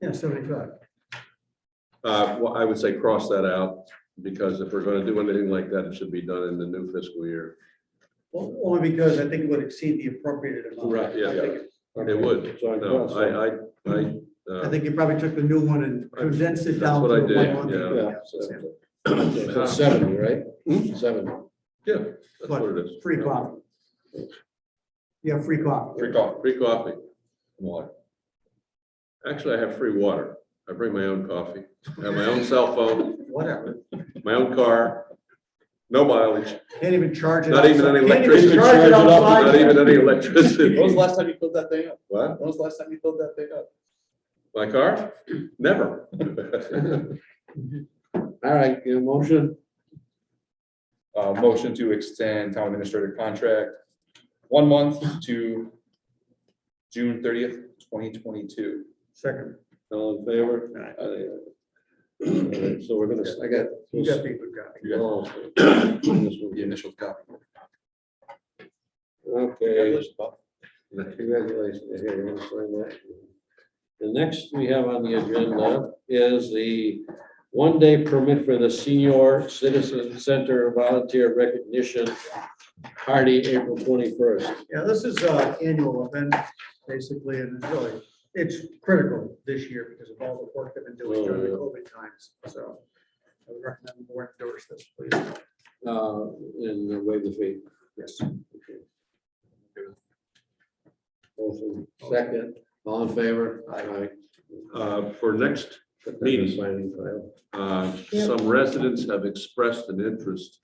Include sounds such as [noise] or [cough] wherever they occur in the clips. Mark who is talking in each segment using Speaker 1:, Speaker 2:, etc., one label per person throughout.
Speaker 1: Yeah, seventy-five.
Speaker 2: Uh, well, I would say cross that out, because if we're gonna do anything like that, it should be done in the new fiscal year.
Speaker 1: Well, Only because I think it would exceed the appropriated amount.
Speaker 2: Right, yeah,
Speaker 1: I
Speaker 2: yeah.
Speaker 1: think-
Speaker 2: It would,
Speaker 3: So I
Speaker 2: no,
Speaker 3: guess,
Speaker 2: I, I, I.
Speaker 1: I
Speaker 2: uh,
Speaker 1: think you probably took the new one and condensed it down.
Speaker 2: That's what
Speaker 1: to
Speaker 2: I did,
Speaker 1: one month.
Speaker 2: yeah.
Speaker 3: Yeah.
Speaker 1: Yeah,
Speaker 3: So seventy, right?
Speaker 2: Hmm?
Speaker 3: Seventy.
Speaker 2: Yeah, that's what it is.
Speaker 1: Free coffee. Yeah, free coffee.
Speaker 2: Free coffee. Free coffee. and Water. Actually, I have free water. I bring my own coffee, I have my own cell phone,
Speaker 1: Whatever.
Speaker 2: my own car, no mileage,
Speaker 1: Can't even charge it.
Speaker 2: Not even
Speaker 1: outside.
Speaker 2: any
Speaker 1: Can't even
Speaker 2: electricity.
Speaker 1: charge it
Speaker 3: Charge it up,
Speaker 1: outside.
Speaker 2: not even any electricity.
Speaker 3: When was the last time you filled that thing up?
Speaker 2: What?
Speaker 3: When was the last time you filled that thing up?
Speaker 2: My car? Never.
Speaker 3: All right, your motion,
Speaker 4: Uh, motion to extend town administrator contract one month to June thirtieth, twenty twenty-two.
Speaker 1: Second,
Speaker 3: all in favor? Aye. All right, So we're gonna, I got.
Speaker 1: you got people got it.
Speaker 3: Oh, this one.
Speaker 4: The initial copy.
Speaker 3: Okay, congratulations. Here, you wanna sign that? The next we have on the agenda is the one-day permit for the Senior Citizen Center Volunteer Recognition Party, April twenty-first.
Speaker 1: Yeah, this is an annual event, basically, and it's really, it's critical this year because of all the work they've been doing
Speaker 2: Oh,
Speaker 1: during the COVID times, so. I would recommend the board endorse this, please.
Speaker 3: Uh, and waive the fee.
Speaker 1: Yes.
Speaker 3: Motion second, all in favor? Aye.
Speaker 2: Uh, For next
Speaker 3: Put that in
Speaker 2: Meeting.
Speaker 3: signing file.
Speaker 2: Uh, Some residents have expressed an interest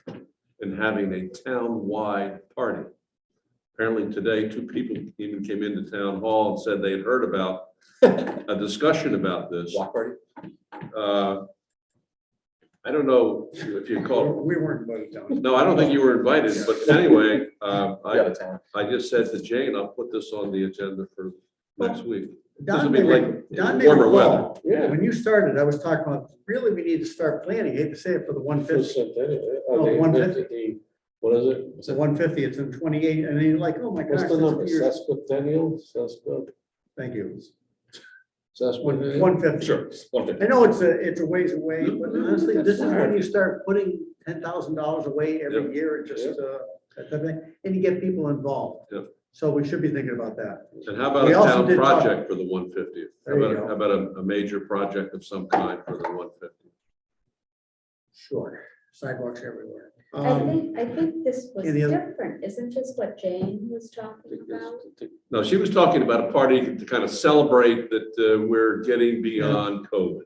Speaker 2: in having a town-wide party. Apparently today, two people even came into town hall and said they had heard
Speaker 1: [laughs]
Speaker 2: about a discussion about this.
Speaker 4: Block party?
Speaker 2: Uh, I don't know if you call,
Speaker 1: We weren't voted down.
Speaker 2: no, I don't think you were invited, but anyway, uh,
Speaker 4: Out
Speaker 2: I,
Speaker 4: of town.
Speaker 2: I just said to Jane, I'll put this on the agenda for next week. This will
Speaker 1: Don
Speaker 2: be
Speaker 1: may
Speaker 2: like
Speaker 1: re- Don may
Speaker 2: warmer
Speaker 1: recall,
Speaker 2: weather.
Speaker 3: Yeah.
Speaker 1: When you started, I was talking about, really, we need to start planning, hate to say it, for the one fifty,
Speaker 3: Percent anyway.
Speaker 1: No,
Speaker 3: Okay,
Speaker 1: 150.
Speaker 3: the- What is it?
Speaker 1: it's a one fifty, it's in twenty-eight, and then you're like, oh my gosh.
Speaker 3: What's the
Speaker 1: that's
Speaker 3: number?
Speaker 1: years.
Speaker 3: Sesquicentennial, sesqu,
Speaker 1: Thank you.
Speaker 3: sesquicentennial?
Speaker 1: One fifty.
Speaker 4: Sure. one fifty.
Speaker 1: I know it's a, it's a ways away, but honestly, this is when you start putting ten thousand dollars away
Speaker 2: Yep.
Speaker 1: every year, it just, uh, that type of thing, and you get people involved.
Speaker 2: Yep.
Speaker 1: So we should be thinking about that.
Speaker 2: And how about a
Speaker 1: We also
Speaker 2: town
Speaker 1: did talk-
Speaker 2: project for the one fiftieth? How
Speaker 1: There you
Speaker 2: about,
Speaker 1: go.
Speaker 2: how about a, a major project of some kind for the one fiftieth?
Speaker 1: Sure, sidewalks everywhere.
Speaker 5: I
Speaker 1: Um,
Speaker 5: think, I think this was
Speaker 1: any other-
Speaker 5: different, isn't this what Jane was talking about?
Speaker 2: No, she was talking about a party to kind of celebrate that uh, we're getting beyond COVID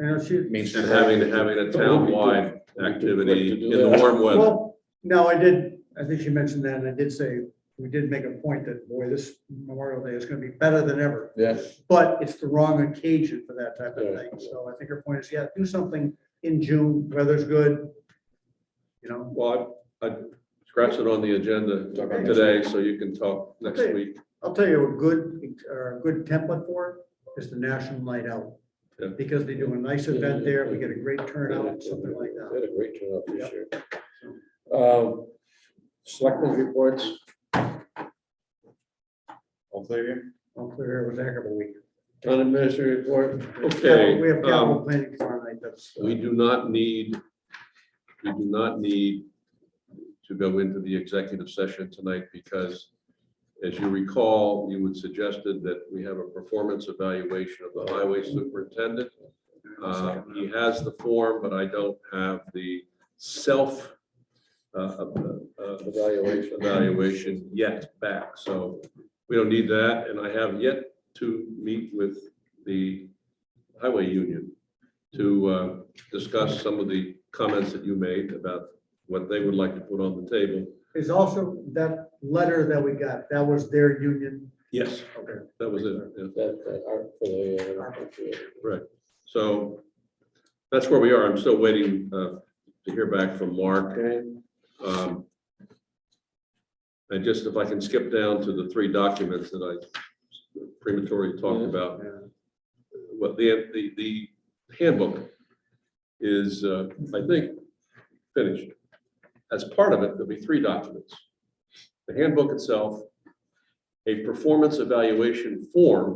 Speaker 1: I know she,
Speaker 4: Main
Speaker 2: and
Speaker 4: Street.
Speaker 2: having, having a town-wide activity in the warm weather.
Speaker 1: well, no, I did, I think she mentioned that, and I did say, we did make a point that, boy, this Memorial Day is gonna be better than ever.
Speaker 4: Yeah.
Speaker 1: But it's the wrong occasion for that type of
Speaker 3: Yeah.
Speaker 1: thing, so I think her point is, yeah, do something in June, weather's good. You know,
Speaker 2: Well, I I scratched it on the agenda
Speaker 4: Talk about
Speaker 2: today, so you can talk next
Speaker 1: Okay.
Speaker 2: week.
Speaker 1: I'll tell you a good, or a good template for it is the National Night Out.
Speaker 2: Yeah.
Speaker 1: Because they do a nice event there, we get a great turnout, something like that.
Speaker 3: Had a great turnout
Speaker 1: Yep.
Speaker 3: this year. Um, selectmen's reports,
Speaker 4: All clear?
Speaker 1: I'll clear it was a heck of a week.
Speaker 3: town administrator report,
Speaker 2: Okay,
Speaker 1: We have capital
Speaker 2: um,
Speaker 1: planning tomorrow night, that's. uh,
Speaker 2: We do not need, we do not need to go into the executive session tonight because as you recall, you had suggested that we have a performance evaluation of the highway superintendent. Uh, He has the form, but I don't have the self uh, uh, uh,
Speaker 3: evaluation.
Speaker 2: evaluation yet back, so we don't need that, and I have yet to meet with the highway union to uh, discuss some of the comments that you made about what they would like to put on the table.
Speaker 1: Is also that letter that we got, that was their union.
Speaker 2: Yes.
Speaker 1: Okay.
Speaker 2: That was it, yeah,
Speaker 3: That, that art for the. uh,
Speaker 2: right. So that's where we are. I'm still waiting uh, to hear back from Mark.
Speaker 3: Okay,
Speaker 2: Um, And just if I can skip down to the three documents that I prematurely talked
Speaker 3: Yeah.
Speaker 2: about,
Speaker 1: Yeah.
Speaker 2: what the, the, the handbook is, uh, I think, finished. As part of it, there'll be three documents. The handbook itself, a performance evaluation form